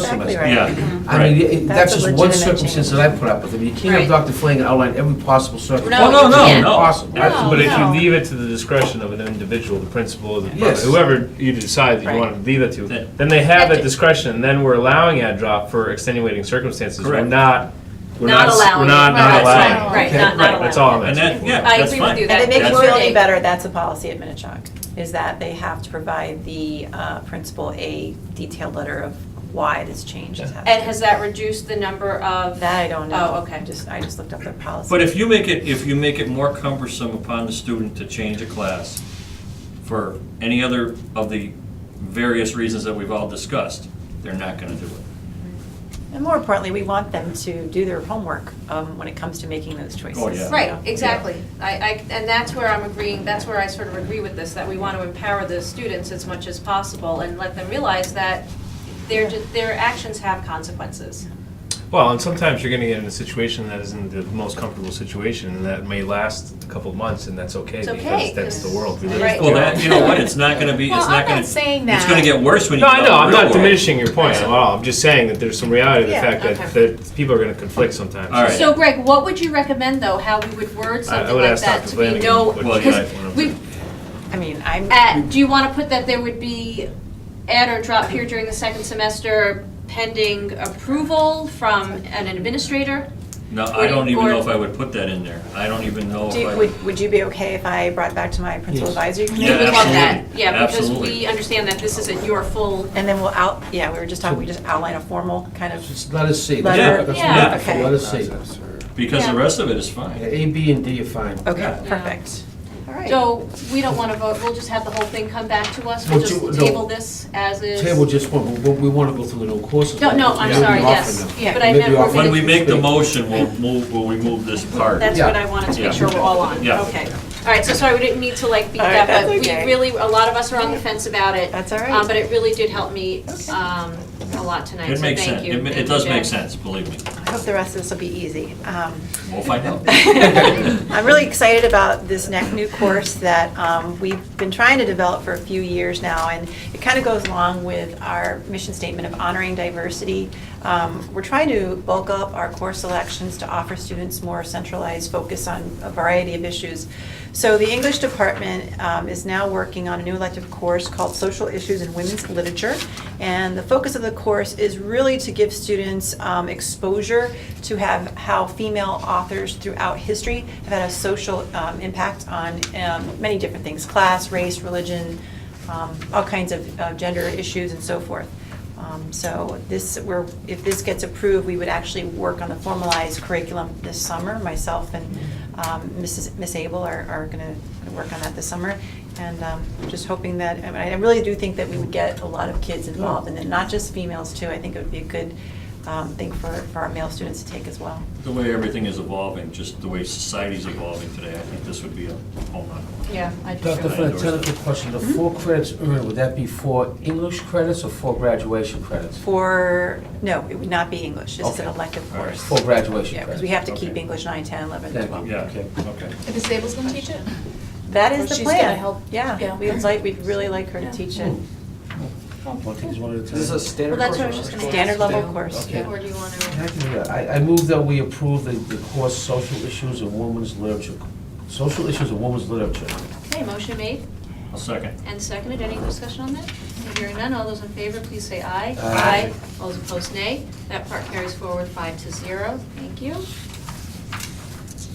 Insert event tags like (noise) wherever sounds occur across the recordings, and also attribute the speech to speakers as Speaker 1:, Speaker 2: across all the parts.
Speaker 1: exactly
Speaker 2: semester.
Speaker 1: right.
Speaker 2: I
Speaker 3: Yeah.
Speaker 2: mean,
Speaker 3: Right.
Speaker 2: it-
Speaker 1: That's
Speaker 2: that's
Speaker 1: a
Speaker 2: just one
Speaker 1: legitimate
Speaker 2: circumstance
Speaker 1: change.
Speaker 2: that I put up with. I mean, you can't have
Speaker 4: Right.
Speaker 2: Dr. Flanagan outline every possible circumstance.
Speaker 3: Well, no,
Speaker 4: you
Speaker 3: no,
Speaker 4: can't.
Speaker 3: no.
Speaker 2: Possible.
Speaker 3: Absolutely, But if
Speaker 4: Oh,
Speaker 1: No.
Speaker 3: you leave it to the discretion of an individual, the principal, the
Speaker 2: Yes.
Speaker 3: whoever you decide that you
Speaker 1: Right.
Speaker 3: want to leave it to,
Speaker 5: That-
Speaker 3: then they have
Speaker 4: That
Speaker 3: that
Speaker 4: di-
Speaker 3: discretion, and then we're allowing ad drop for extenuating circumstances. We're
Speaker 5: Correct.
Speaker 3: not, we're
Speaker 4: Not
Speaker 3: not, s-
Speaker 4: allowing
Speaker 3: we're
Speaker 4: it.
Speaker 3: not, not
Speaker 4: Right,
Speaker 1: right,
Speaker 3: allowing.
Speaker 2: right,
Speaker 3: it.
Speaker 2: not-
Speaker 4: not
Speaker 3: Right, that's all I'm
Speaker 5: Oh, And
Speaker 3: asking
Speaker 5: that,
Speaker 3: for.
Speaker 5: yeah,
Speaker 4: I
Speaker 5: that's
Speaker 4: agree with
Speaker 5: fine.
Speaker 4: you. That-
Speaker 1: And it makes
Speaker 5: that's
Speaker 1: me
Speaker 4: fine.
Speaker 1: feel better, that's a policy at Minichog, is that they have to provide the uh, principal a detailed letter of why this change is happening.
Speaker 4: And has that reduced the number of?
Speaker 1: That I don't know.
Speaker 4: Oh, okay.
Speaker 1: Just, I just looked up their policy.
Speaker 5: But if you make it, if you make it more cumbersome upon the student to change a class for any other of the various reasons that we've all discussed, they're not gonna do it.
Speaker 1: And more importantly, we want them to do their homework um, when it comes to making those choices.
Speaker 5: Oh, yeah.
Speaker 1: you know?
Speaker 4: Right, exactly. I, I, and that's where I'm agreeing, that's where I sort of agree with this, that we want to empower the students as much as possible and let them realize that their, their actions have consequences.
Speaker 3: Well, and sometimes you're gonna get in a situation that isn't the most comfortable situation, and that may last a couple of months, and that's okay,
Speaker 4: It's
Speaker 3: because
Speaker 4: okay,
Speaker 3: that's the
Speaker 4: 'cause-
Speaker 3: world we
Speaker 4: Right.
Speaker 3: live
Speaker 5: Well,
Speaker 3: in.
Speaker 5: that, you know what, it's not gonna be, it's
Speaker 6: Well,
Speaker 5: not
Speaker 6: I'm
Speaker 5: gonna.
Speaker 6: not saying
Speaker 5: It's
Speaker 6: that.
Speaker 5: gonna get worse when you
Speaker 3: No,
Speaker 5: get out
Speaker 3: I
Speaker 5: in the
Speaker 3: know, I'm
Speaker 5: real
Speaker 3: not
Speaker 5: world.
Speaker 3: diminishing your point at all, I'm just saying that there's some reality to the
Speaker 1: Yeah,
Speaker 3: fact that,
Speaker 4: okay.
Speaker 3: that people are gonna conflict sometimes.
Speaker 5: All right.
Speaker 4: So Greg, what would you recommend, though, how we would word
Speaker 3: I- I
Speaker 4: something
Speaker 3: would
Speaker 4: like
Speaker 3: ask
Speaker 4: that
Speaker 3: Dr.
Speaker 4: to be
Speaker 3: Flanagan
Speaker 4: no?
Speaker 3: what
Speaker 5: she
Speaker 4: because
Speaker 3: might wanna
Speaker 4: we-
Speaker 1: I mean, I'm.
Speaker 4: at- do you want to put that there would be add or drop here during the second semester pending approval from an administrator?
Speaker 5: No, I don't even
Speaker 4: Or-
Speaker 5: know if I would put that in there. I don't even know if
Speaker 1: Do you-
Speaker 5: I.
Speaker 1: Would, would you be okay if I brought it back to my principal advisory committee?
Speaker 5: Yeah,
Speaker 4: We would love that,
Speaker 5: absolutely.
Speaker 4: yeah, because
Speaker 5: Absolutely.
Speaker 4: we understand that this isn't your full
Speaker 1: And then we'll out, yeah, we were just talking, we just outline a formal kind of,
Speaker 2: Just let us see.
Speaker 1: Letter-
Speaker 2: That's
Speaker 4: Yeah.
Speaker 2: wonderful.
Speaker 1: Yeah.
Speaker 2: Let us see.
Speaker 5: Because the
Speaker 4: Yeah.
Speaker 5: rest of it is
Speaker 2: Yeah,
Speaker 5: fine.
Speaker 2: A, B, and D are fine.
Speaker 1: okay,
Speaker 5: Yeah.
Speaker 1: perfect. All right.
Speaker 4: So we don't want to vote, we'll just have the whole thing come back to us, we'll
Speaker 2: Would you-
Speaker 4: just
Speaker 2: no.
Speaker 4: table this as is.
Speaker 2: Table just one, but we want to go through the new courses.
Speaker 4: No, no, I'm
Speaker 2: Maybe
Speaker 4: sorry,
Speaker 2: offer
Speaker 4: yes,
Speaker 2: them.
Speaker 4: but I
Speaker 2: Maybe
Speaker 4: meant. we're
Speaker 2: offer-
Speaker 5: When
Speaker 4: gonna-
Speaker 5: we make the motion, we'll move, we'll remove this part.
Speaker 4: That's
Speaker 2: Yeah.
Speaker 4: what I wanted to
Speaker 5: Yeah.
Speaker 4: make sure we're all on,
Speaker 5: Yeah.
Speaker 4: okay. All right, so sorry, we didn't need to like beat
Speaker 1: All right,
Speaker 4: that, but
Speaker 1: that's
Speaker 4: we
Speaker 1: okay.
Speaker 4: really, a lot of us are on the fence about it.
Speaker 1: That's all right.
Speaker 4: Um, But it really did help me um, a lot tonight,
Speaker 5: It
Speaker 4: so
Speaker 5: makes
Speaker 4: thank
Speaker 5: sense.
Speaker 4: you.
Speaker 5: It ma-
Speaker 4: Thank
Speaker 5: it
Speaker 4: you,
Speaker 5: does make
Speaker 4: Jen.
Speaker 5: sense, believe me.
Speaker 1: I hope the rest of this will be easy. Um,
Speaker 5: We'll find out.
Speaker 1: (laughs) I'm really excited about this next new course that um, we've been trying to develop for a few years now, and it kind of goes along with our mission statement of honoring diversity. Um, We're trying to bulk up our course selections to offer students more centralized focus on a variety of issues. So the English department um, is now working on a new elective course called Social Issues in Women's Literature, and the focus of the course is really to give students um, exposure to have how female authors throughout history have had a social um, impact on um, many different things class, race, religion, um, all kinds of uh, gender issues, and so forth. Um, So this, we're, if this gets approved, we would actually work on the formalized curriculum this summer. Myself and um, Mrs., Miss Abel are, are gonna gonna work on that this summer. And um, just hoping that, I mean, I really do think that we would get a lot of kids involved, and then not just females too. I think it would be a good um, thing for, for our male students to take as well.
Speaker 5: The way everything is evolving, just the way society's evolving today, I think this would be a home run.
Speaker 4: Yeah, I do.
Speaker 2: Dr.
Speaker 4: too.
Speaker 2: Flynn, technical question, the four
Speaker 4: Mm-hmm.
Speaker 2: credits earned, would that be four English credits or four graduation credits?
Speaker 1: For, no, it would not be English. This is an
Speaker 2: Okay.
Speaker 1: elective
Speaker 5: All right.
Speaker 1: course.
Speaker 2: Four graduation
Speaker 1: Yeah,
Speaker 2: credits?
Speaker 1: because we have to keep
Speaker 5: Okay.
Speaker 1: English 9, 10, 11,
Speaker 2: Thank
Speaker 1: 12.
Speaker 2: you.
Speaker 5: Yeah,
Speaker 2: Okay.
Speaker 5: okay.
Speaker 6: And Ms. Abel's gonna teach it?
Speaker 1: That
Speaker 6: Or
Speaker 1: is the
Speaker 6: she's gonna
Speaker 1: plan.
Speaker 6: help-
Speaker 1: Yeah,
Speaker 6: yeah.
Speaker 1: we'd like, we'd really like her to
Speaker 2: Hmm.
Speaker 1: teach it.
Speaker 2: This is a
Speaker 4: Well,
Speaker 2: standard
Speaker 4: that's what I was just gonna ask.
Speaker 1: Standard level course.
Speaker 2: Okay.
Speaker 4: Or do you want to?
Speaker 2: I, I move that we approve the, the course Social Issues in Women's Literature, Social Issues in Women's Literature.
Speaker 4: Okay, motion made
Speaker 5: I'll second.
Speaker 4: and seconded, any discussion on that? Hearing none, all those in favor, please say aye.
Speaker 2: Aye.
Speaker 4: All those opposed, nay. That part carries forward five to zero, thank you.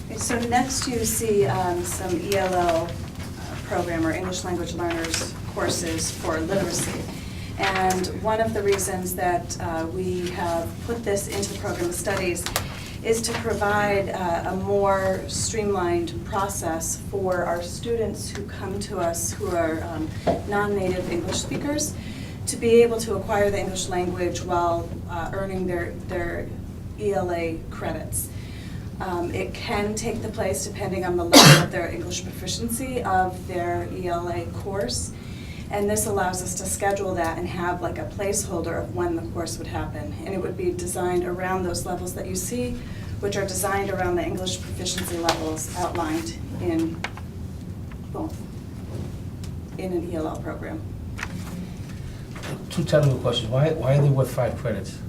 Speaker 7: Okay, So next you see um, some ELL uh, program or English language learners courses for literacy. And one of the reasons that uh, we have put this into the program of studies is to provide uh, a more streamlined process for our students who come to us who are um, non-native English speakers to be able to acquire the English language while uh, earning their, their ELA credits. Um, It can take the place, depending on the level of their English proficiency, of their ELA course. And this allows us to schedule that and have like a placeholder of when the course would happen. And it would be designed around those levels that you see, which are designed around the English proficiency levels outlined in both, in an ELL program.
Speaker 2: Two technical questions, why, why are they worth five credits?